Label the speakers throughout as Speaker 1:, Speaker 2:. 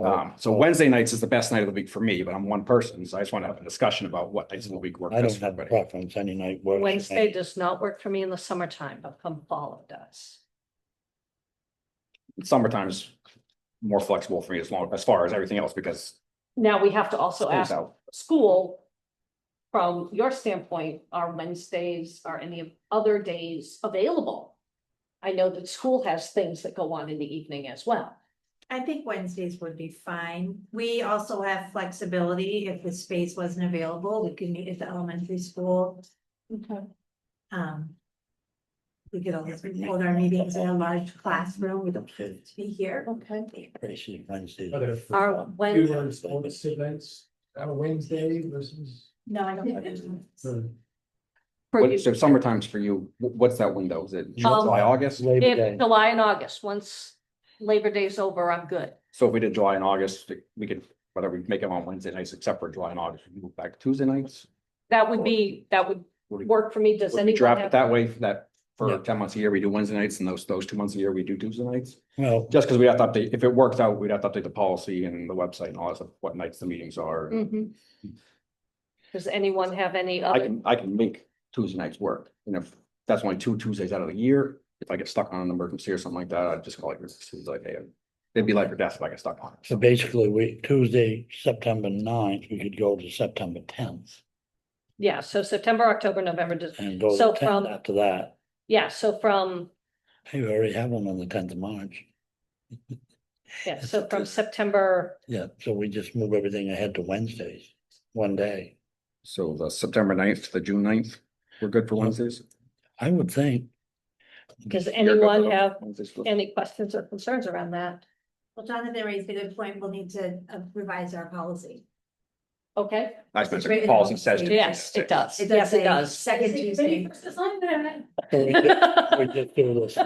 Speaker 1: Um, so Wednesday nights is the best night of the week for me, but I'm one person, so I just want to have a discussion about what nights of the week work
Speaker 2: I don't
Speaker 1: best for
Speaker 2: have a
Speaker 1: everybody.
Speaker 2: preference, any night works. for me.
Speaker 3: Wednesday does not work for me in the summertime, but come fall it does.
Speaker 1: Summertime is more flexible for me as long, as far as everything else, because
Speaker 3: Now, we have to also
Speaker 1: school's
Speaker 3: ask
Speaker 1: out.
Speaker 3: school. From your standpoint, are Wednesdays, are any other days available? I know that school has things that go on in the evening as well.
Speaker 4: I think Wednesdays would be fine. We also have flexibility if the space wasn't available, we could meet at the elementary school. Um. We could always hold our meetings in a large classroom, we don't have to be here.
Speaker 3: Okay.
Speaker 2: Appreciate Wednesdays.
Speaker 5: Are there
Speaker 3: Are
Speaker 5: fewer
Speaker 3: when,
Speaker 5: bonus events on Wednesday versus?
Speaker 4: No, I don't.
Speaker 5: the-
Speaker 3: for you, Um,
Speaker 1: What, so summertime's for you, wh- what's that window? Is it July, August?
Speaker 2: Labor Day.
Speaker 3: if July and August, once Labor Day's over, I'm good.
Speaker 1: So if we did July and August, we could, whether we make them on Wednesday nights, except for July and August, we move back Tuesday nights.
Speaker 3: That would be, that would
Speaker 1: Would we-
Speaker 3: work for me. Does
Speaker 1: Would we
Speaker 3: anyone
Speaker 1: draft it
Speaker 3: have?
Speaker 1: that way for that, for
Speaker 2: Yeah.
Speaker 1: ten months a year, we do Wednesday nights, and those, those two months a year, we do Tuesday nights?
Speaker 2: Well,
Speaker 1: Just because we have to update, if it works out, we'd have to update the policy and the website and all that stuff, what nights the meetings are.
Speaker 3: Mhm. Does anyone have any
Speaker 1: I
Speaker 3: other?
Speaker 1: can, I can make Tuesday nights work, and if that's only two Tuesdays out of the year, if I get stuck on an emergency or something like that, I'd just call it, it's like, hey, it'd be life or death if I get stuck on
Speaker 2: so
Speaker 1: it.
Speaker 2: basically, we, Tuesday, September 9th, we could go to September tenth.
Speaker 3: Yeah, so September, October, November, Dec-
Speaker 2: And go
Speaker 3: So
Speaker 2: to
Speaker 3: from-
Speaker 2: tenth after that.
Speaker 3: yeah, so from,
Speaker 2: Hey, we already have one on the tenth of March.
Speaker 3: yeah, so from September,
Speaker 2: Yeah, so we just move everything ahead to Wednesdays, one day.
Speaker 1: So the September 9th to the June 9th, we're good for Wednesdays?
Speaker 2: I would think,
Speaker 3: does
Speaker 1: You're good for
Speaker 3: anyone
Speaker 1: those
Speaker 3: have
Speaker 1: Wednesdays for-
Speaker 3: any questions or concerns around that?
Speaker 4: Well, Jonathan raised a good point, we'll need to uh, revise our policy.
Speaker 3: Okay,
Speaker 1: I spent
Speaker 4: It's
Speaker 1: a
Speaker 4: written
Speaker 1: policy
Speaker 4: in the
Speaker 1: session.
Speaker 4: policy.
Speaker 3: yes, it does. Yes,
Speaker 4: It does
Speaker 3: it
Speaker 4: say
Speaker 3: does.
Speaker 4: Second Tuesday.
Speaker 2: we just we just do this,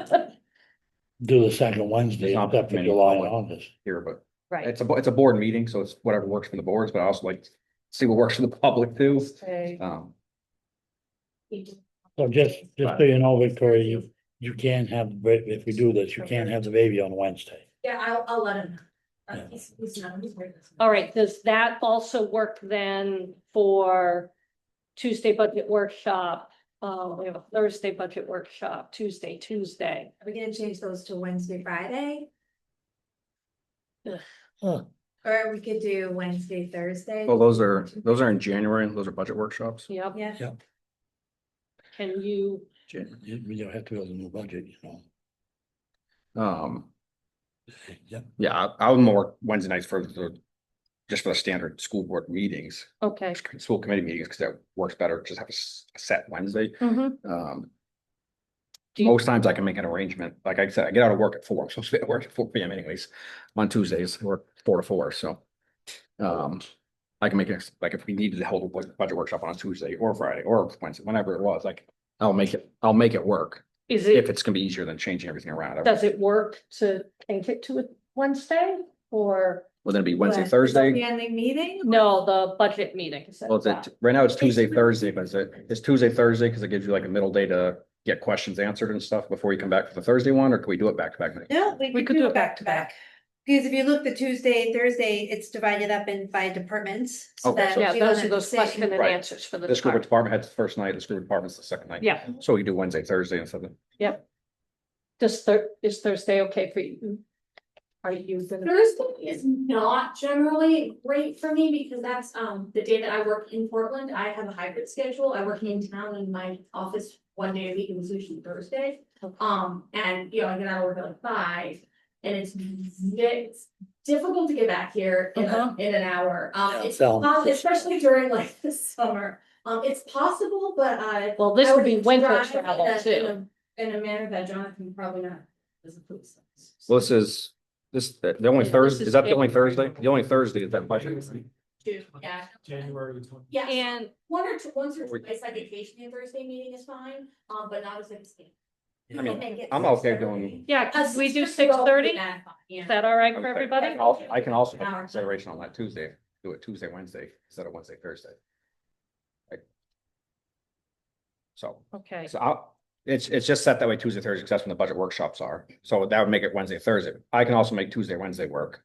Speaker 2: do the second Wednesday,
Speaker 1: It's not
Speaker 2: except for
Speaker 1: many
Speaker 2: July and
Speaker 1: public-
Speaker 2: August.
Speaker 1: Here, but
Speaker 3: Right.
Speaker 1: it's a, bo- it's a board meeting, so it's whatever works for the boards, but I also like to see what works for the public too.
Speaker 3: Okay.
Speaker 1: Um,
Speaker 2: So just, just so you know, Victoria, you, you can't have, the ba- if we do this, you can't have the baby on Wednesday.
Speaker 4: Yeah, I'll, I'll let him. know.
Speaker 2: Yeah.
Speaker 4: Uh, he's- he's not- he's working.
Speaker 3: All right, does that also work then for Tuesday budget workshop? Uh, we have a Thursday budget workshop, Tuesday, Tuesday.
Speaker 4: Are we gonna change those to Wednesday, Friday?
Speaker 2: Huh.
Speaker 4: Or we could do Wednesday, Thursday?
Speaker 1: well, those are, those are in January, and those are budget workshops.
Speaker 3: Yep,
Speaker 4: Yeah,
Speaker 3: can you,
Speaker 1: January.
Speaker 2: You, you have to build a new budget, you know.
Speaker 1: Um,
Speaker 2: Yeah,
Speaker 1: yeah, I- I would more Wednesday nights for the, just for the standard school board meetings,
Speaker 3: okay.
Speaker 1: school committee meetings, because that works better, just have a s- a set Wednesday.
Speaker 3: Mhm.
Speaker 1: Um,
Speaker 3: Do you-
Speaker 1: most times I can make an arrangement, like I said, I get out of work at four, I'm supposed to be at work at four P M anyways, on Tuesdays, I work four to four, so. Um, I can make it, like, if we needed to hold a bu- budget workshop on a Tuesday or Friday or Wednesday, whenever it was, like, I'll make it, I'll make it work,
Speaker 3: Is
Speaker 1: if
Speaker 3: it,
Speaker 1: it's gonna be easier than changing everything around.
Speaker 3: does it work to change it to a Wednesday or
Speaker 1: Well, then it'd be Wednesday,
Speaker 4: But-
Speaker 1: Thursday.
Speaker 4: The ending meeting?
Speaker 3: no, the budget meeting? is at
Speaker 1: Well, it's,
Speaker 3: that.
Speaker 1: a- right now it's Tuesday, Thursday, but it's, a- it's Tuesday, Thursday, because it gives you like a middle day to get questions answered and stuff before you come back for the Thursday one, or can we do it back to back?
Speaker 4: No, we could do it back to back. Because if you look the Tuesday, Thursday, it's divided up in by departments. so
Speaker 1: Okay,
Speaker 4: that
Speaker 1: so-
Speaker 3: Yeah,
Speaker 4: we don't
Speaker 3: those are
Speaker 4: have
Speaker 3: those
Speaker 4: to
Speaker 3: question and
Speaker 4: sit-
Speaker 1: Right.
Speaker 3: answers for the
Speaker 1: This group of
Speaker 3: department.
Speaker 1: department heads first night, this group of department's the second night.
Speaker 3: Yeah,
Speaker 1: So we do Wednesday, Thursday instead of,
Speaker 3: does Thur- is Thursday okay for you? Are you gonna,
Speaker 6: Thursday is not generally great for me because that's um the day that I work in Portland. I have a hybrid schedule. I work in town in my office one day a week. It was usually Thursday.
Speaker 3: Okay.
Speaker 6: Um, and you know, I get out of work at like five and it's it's difficult to get back here in a,
Speaker 3: Uh-huh.
Speaker 6: in an hour. Um, it's
Speaker 2: so-
Speaker 6: um, especially during like the summer. Um, it's possible, but I.
Speaker 3: well, this
Speaker 6: I
Speaker 3: would be winter
Speaker 6: drive in a-
Speaker 3: travel
Speaker 6: in
Speaker 3: too.
Speaker 6: a- In a manner that Jonathan probably not doesn't put us.
Speaker 1: well, this is, this, the only
Speaker 3: Yeah, this
Speaker 1: Thursday,
Speaker 3: is
Speaker 1: is that the only
Speaker 3: January.
Speaker 1: Thursday? The only Thursday is that budget.
Speaker 6: Two, yeah.
Speaker 5: January twenty.
Speaker 6: Yeah.
Speaker 3: And
Speaker 6: One or two, once or
Speaker 1: We-
Speaker 6: twice, like occasionally a Thursday meeting is fine, um, but not as a standard.
Speaker 1: I mean,
Speaker 4: Make it
Speaker 1: I'm okay doing.
Speaker 4: 6:30.
Speaker 3: yeah, could we do six thirty? Is
Speaker 6: Yeah.
Speaker 3: that all right for everybody?
Speaker 1: I'll- I can also have
Speaker 6: Hour.
Speaker 1: consideration on that Tuesday, do it Tuesday, Wednesday, instead of Wednesday, Thursday. Like, So.
Speaker 3: Okay,
Speaker 1: So I'll, it's, it's just set that way Tuesday, Thursday, because that's when the budget workshops are. So that would make it Wednesday, Thursday. I can also make Tuesday, Wednesday work.